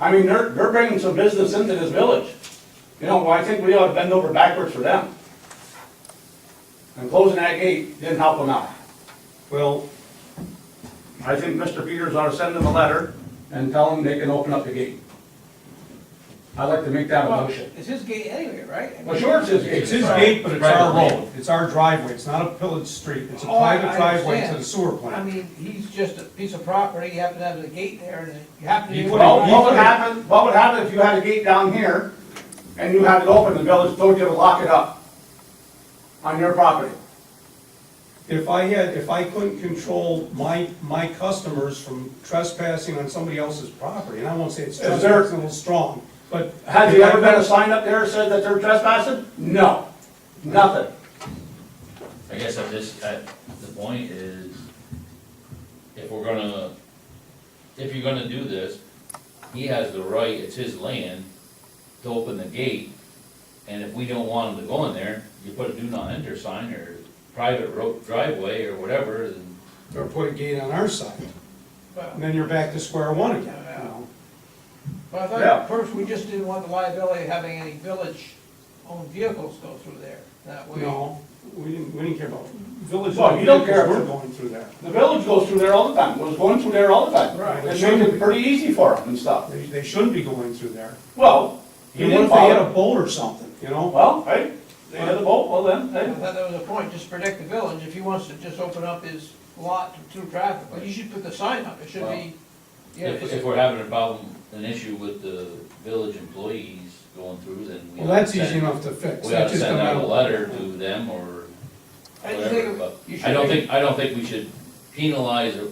I mean, they're, they're bringing some business into this village. You know, well, I think we ought to bend over backwards for them. And closing that gate didn't help them out. Well, I think Mr. Peters ought to send them a letter and tell them they can open up the gate. I'd like to make that a Well, motion. It's his gate anyway, right? Well, sure, it's his gate. it's his gate, but it's our road, it's our driveway, it's not a village street, it's a Oh, I- private I driveway to understand. the sewer I plant. mean, he's just a piece of property, you happen to have the gate there, and you happen to. He be- put Well, it- what would happen, what would happen if you had a gate down here and you had it open, the village told you to lock it up on your property? If I had, if I couldn't control my, my customers from trespassing on somebody else's property, and I won't say it's there- trespassing, it's a little strong, but. Has there ever been a sign up there that says that they're trespassing? No, nothing. I guess I'm just, at the point is, if we're gonna, if you're gonna do this, he has the right, it's his land, to open the gate, and if we don't want him to go in there, you put a do not enter sign or private road driveway or whatever, and Or put a gate on our side, Well, and then you're back to square one again, you know? But I Yeah. thought, first, we just didn't want the liability of having any village-owned vehicles go through there, that way. No, we didn't, we didn't care about village. Well, you don't care if- We're going through there. The village goes through there all the time, was going through there all the time. Right. It made it pretty easy for them and stuff. They, they shouldn't be going through there. Well, he Even didn't if they had follow. a boat or something, you know? Well, hey, they had a vote, well then, I hey. thought that was the point, just protect the village, if he wants to just open up his lot to through traffic, but you should put the sign up, it should be, yeah, if, if it's- we're having a problem, an issue with the village employees going through, then we. Well, that's send- easy enough to fix. We That ought to just send come out a letter to them or I just think whatever, but you should I don't make- think, I don't think we should penalize a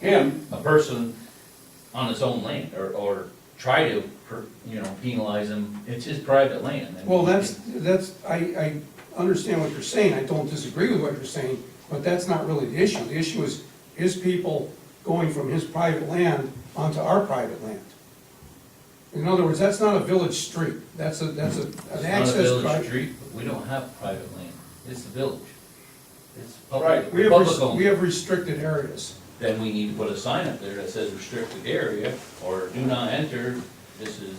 Him, a person on his own land, or, or try to, per- you know, penalize him, it's his private land. I mean, Well, that's, that's, I, I understand what you're saying, I don't disagree with what you're saying, but that's not really the issue. The issue is his people going from his private land onto our private land. In other words, that's not a village street, that's a, that's a, It's an not a access village drive. street, but we don't have private land, it's the village. It's Right, public, We have, public res- we owned. have restricted areas. Then we need to put a sign up there that says restricted area, or do not enter, this is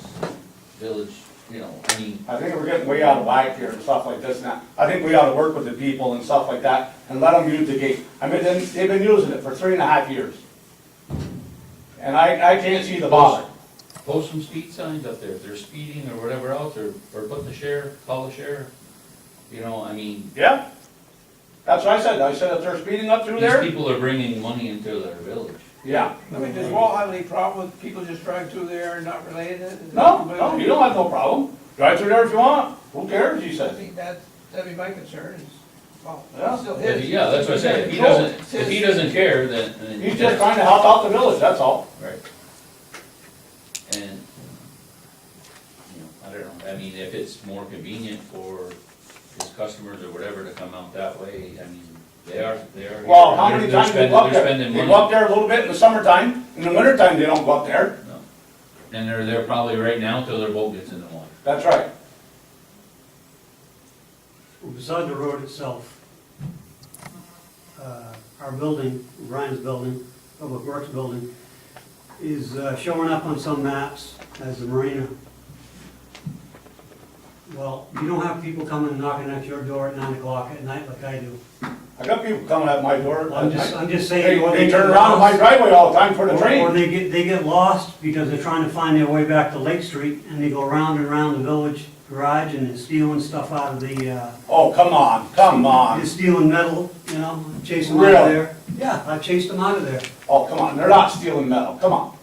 village, you know, I mean, I think we're getting way out of whack here and stuff like this now. I think we ought to work with the people and stuff like that and let them use the gate. I mean, they- they've been using it for three and a half years. And I, I can't see the bother. post some speed signs up there, if they're speeding or whatever else, or, or put the sheriff, call the sheriff. You know, I mean, Yeah. That's what I said, I said if they're speeding up through these there, people are bringing money into their village. yeah. I mean, does Walt have any problem with people just driving through there and not related? Is No, that- no, you don't have no problem. Drive through there if you want. Who cares, he I says. think that, that'd be my concern is, well, Yeah. it's still If his. he- Yeah, that's what I say, if he doesn't, if he doesn't care, then. then- He's just trying to help out the village, that's all. Right. And, you know, I don't know, I mean, if it's more convenient for his customers or whatever to come out that way, I mean, they are, they are. Well, how they're- many they're times they spending- go up They're there? spending They go up money. there a little bit in the summertime, in the wintertime, they don't go up there. No. And they're there probably right now till their boat gets in the water. That's right. Well, beside the road itself, uh, our building, Ryan's building, Public Works building, is uh, showing up on some maps as the marina. Well, you don't have people coming and knocking at your door at nine o'clock at night like I do. I got people coming at my door. I'm just, I'm just They, saying. or they get turn around in my lost- driveway all the time for the or- Or train. they get, they get lost because they're trying to find their way back to Lake Street and they go round and round the village garage and they're stealing stuff out of the, uh, Oh, come on, come on. You're stealing metal, you know, chase them out of Really? there. Yeah, I chased them out of there. Oh, come on, they're not stealing metal, come on.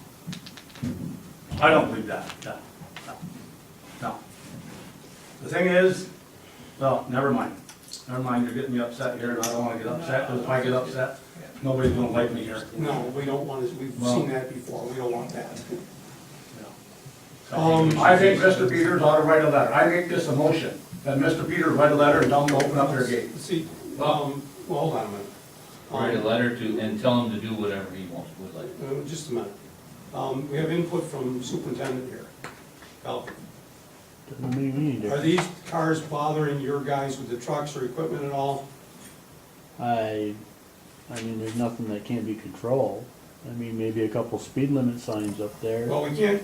I don't believe that, no, no, no. The thing is, well, never mind, never mind, you're getting me upset here, and I don't wanna get upset, because if I get upset, nobody's gonna like me here. No, we don't want to, we've Well- seen that before, we don't want that. So, I think Mr. Peters ought to write a letter, I make this a motion, that Mr. Peters write a letter and tell them to open up their gate. See, Oh. um, well, hold on a minute. Write a Um, letter to, and tell him to do whatever he wants, would like. Uh, Just a minute. Um, We have input from superintendent here. Al, Are these cars bothering your guys with the trucks or equipment at all? I, I mean, there's nothing that can be controlled. I mean, maybe a couple speed limit signs up there. Well, we can't,